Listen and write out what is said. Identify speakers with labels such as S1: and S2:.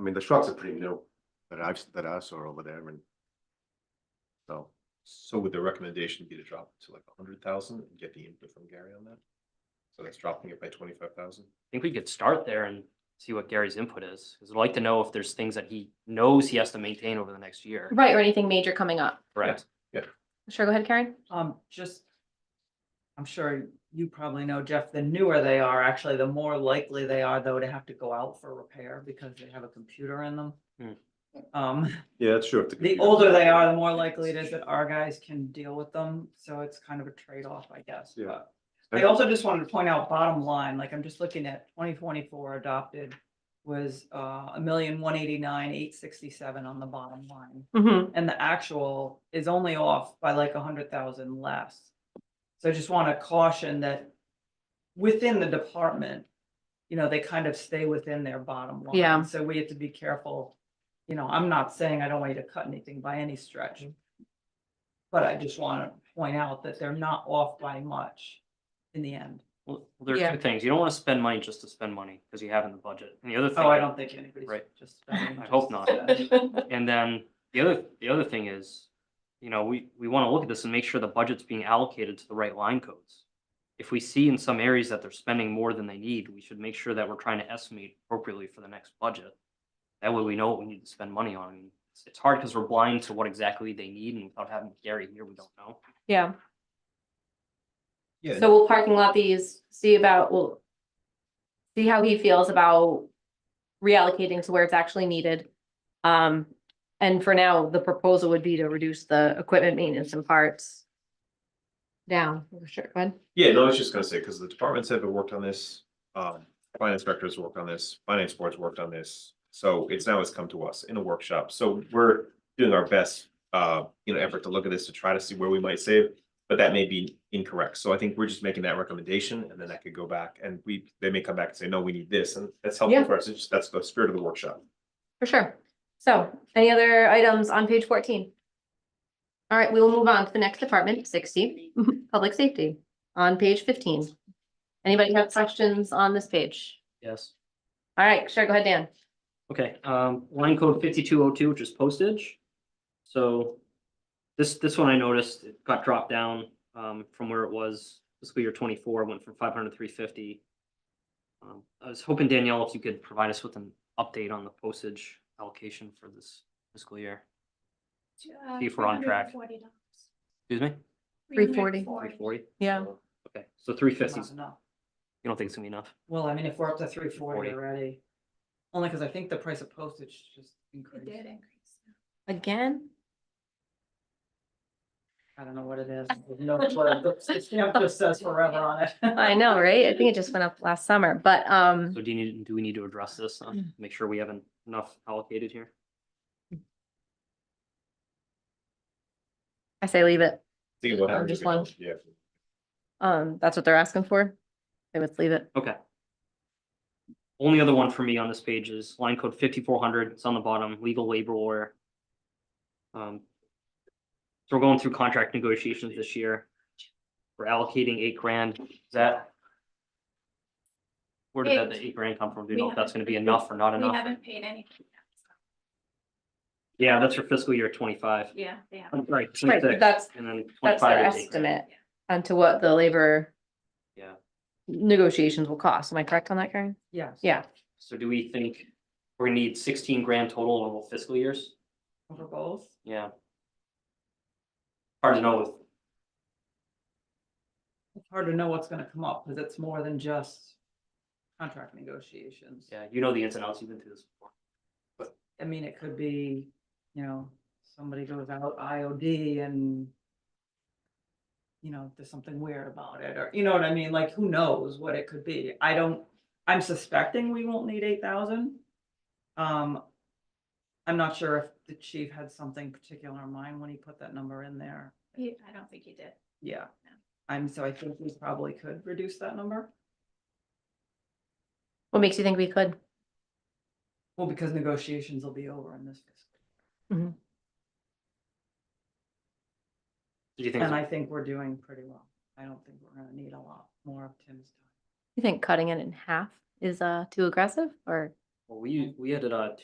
S1: mean, the trucks are pretty new that I've, that I saw over there and. So,
S2: So would the recommendation be to drop it to like a hundred thousand and get the input from Gary on that? So that's dropping it by twenty-five thousand?
S3: think we could start there and see what Gary's input is, because I'd like to know if there's things that he knows he has to maintain over the next year.
S4: Right, or anything major coming up.
S3: Correct.
S4: Sure, go ahead, Karen.
S5: Um, just. I'm sure you probably know, Jeff, the newer they are, actually, the more likely they are though to have to go out for repair because they have a computer in them.
S3: Hmm.
S5: Um,
S1: yeah, that's true. if
S5: the older they are, the more likely it is that our guys can deal with them, so it's kind of a trade-off, I guess,
S1: Yeah.
S5: but. I also just wanted to point out bottom line, like I'm just looking at twenty twenty-four adopted was uh a million one eighty-nine, eight sixty-seven on the bottom line
S4: Mm-hmm.
S5: and the actual is only off by like a hundred thousand less. So I just want to caution that within the department, you know, they kind of stay within their bottom line.
S4: Yeah.
S5: So we have to be careful. You know, I'm not saying I don't want you to cut anything by any stretch. But I just want to point out that they're not off by much in the end.
S3: Well, there
S4: Yeah.
S3: are two things. You don't want to spend money just to spend money, because you have in the budget. And the other thing.
S5: Oh, I don't think anybody's
S3: Right.
S5: just. uh,
S3: I hope not. And then the other, the other thing is, you know, we, we want to look at this and make sure the budget's being allocated to the right line codes. If we see in some areas that they're spending more than they need, we should make sure that we're trying to estimate appropriately for the next budget. That way we know what we need to spend money on. I mean, it's, it's hard because we're blind to what exactly they need and without having Gary here, we don't know.
S4: Yeah,
S2: Yeah,
S4: so we'll parking lot these, see about, we'll see how he feels about reallocating to where it's actually needed. Um, and for now, the proposal would be to reduce the equipment maintenance and parts down, sure, go ahead.
S2: yeah, no, I was just gonna say, because the departments have worked on this, um, finance directors worked on this, finance boards worked on this. So it's now it's come to us in a workshop, so we're doing our best, uh, you know, effort to look at this to try to see where we might save. But that may be incorrect, so I think we're just making that recommendation and then that could go back and we, they may come back and say, no, we need this, and that's helpful
S4: Yeah.
S2: for us, it's just, that's the spirit of the workshop.
S4: For sure. So any other items on page fourteen? All right, we will move on to the next department, sixty, public safety, on page fifteen. Anybody have questions on this page?
S3: Yes.
S4: All right, sure, go ahead, Dan.
S3: Okay, um, line code fifty-two oh two, which is postage. So this, this one I noticed, it got dropped down, um, from where it was fiscal year twenty-four, went from five hundred to three fifty. Um, I was hoping Danielle, if you could provide us with an update on the postage allocation for this fiscal year.
S6: Uh,
S3: See if we're on track. Excuse me?
S4: Three forty.
S3: Three forty?
S4: Yeah.
S3: Okay, so three
S5: Not
S3: fifty, you
S5: enough.
S3: don't think it's gonna be enough?
S5: Well, I mean, if we're up to three forty
S3: 340.
S5: already, only because I think the price of postage just increased.
S4: Again?
S5: I don't know what it is. There's No, clue. the stamp just says forever on it.
S4: I know, right? I think it just went up last summer, but um,
S3: So do you need, do we need to address this, uh, make sure we have en- enough allocated here?
S4: I say leave it.
S2: Think about how
S4: Um,
S2: we're
S4: just
S2: doing it.
S4: one.
S2: Yeah.
S4: Um, that's what they're asking for. I would leave it.
S3: Okay. Only other one for me on this page is line code fifty-four hundred, it's on the bottom, legal labor lawyer. Um. So we're going through contract negotiations this year. We're allocating eight grand, is that? Where did that the eight grand come from? Do you
S6: We
S3: know if that's
S6: haven't-
S3: gonna be enough or not
S6: We
S3: enough?
S6: haven't paid anything yet, so,
S3: Yeah, that's for fiscal year twenty-five.
S6: yeah, they have.
S3: I'm sorry,
S4: Right,
S3: 26,
S4: that's,
S3: And then
S4: that's their
S3: twenty-five is eight grand.
S4: estimate onto what the labor
S3: Yeah.
S4: negotiations will cost. Am I correct on that, Karen?
S5: Yes.
S4: Yeah,
S3: So do we think we're gonna need sixteen grand total over both fiscal years?
S5: For both.
S3: Yeah. Hard to know with
S5: It's hard to know what's gonna come up because it's more than just contract negotiations.
S3: Yeah, you know the ins and outs, you've been through this before.
S5: I mean, it could be, you know, somebody goes out IOD and you know, there's something weird about it, or you know what I mean? Like, who knows what it could be? I don't, I'm suspecting we won't need eight thousand. Um, I'm not sure if the chief had something particular in mind when he put that number in there.
S6: He- I don't think he did.
S5: Yeah, I'm, so I think we probably could reduce that number.
S4: what makes you think we could?
S5: Well, because negotiations will be over in this fiscal.
S3: Do you think,
S5: And I think we're doing pretty well. I don't think we're gonna need a lot more of Tim's time.
S4: You think cutting it in half is uh too aggressive or?
S3: well, we, we had it, uh, two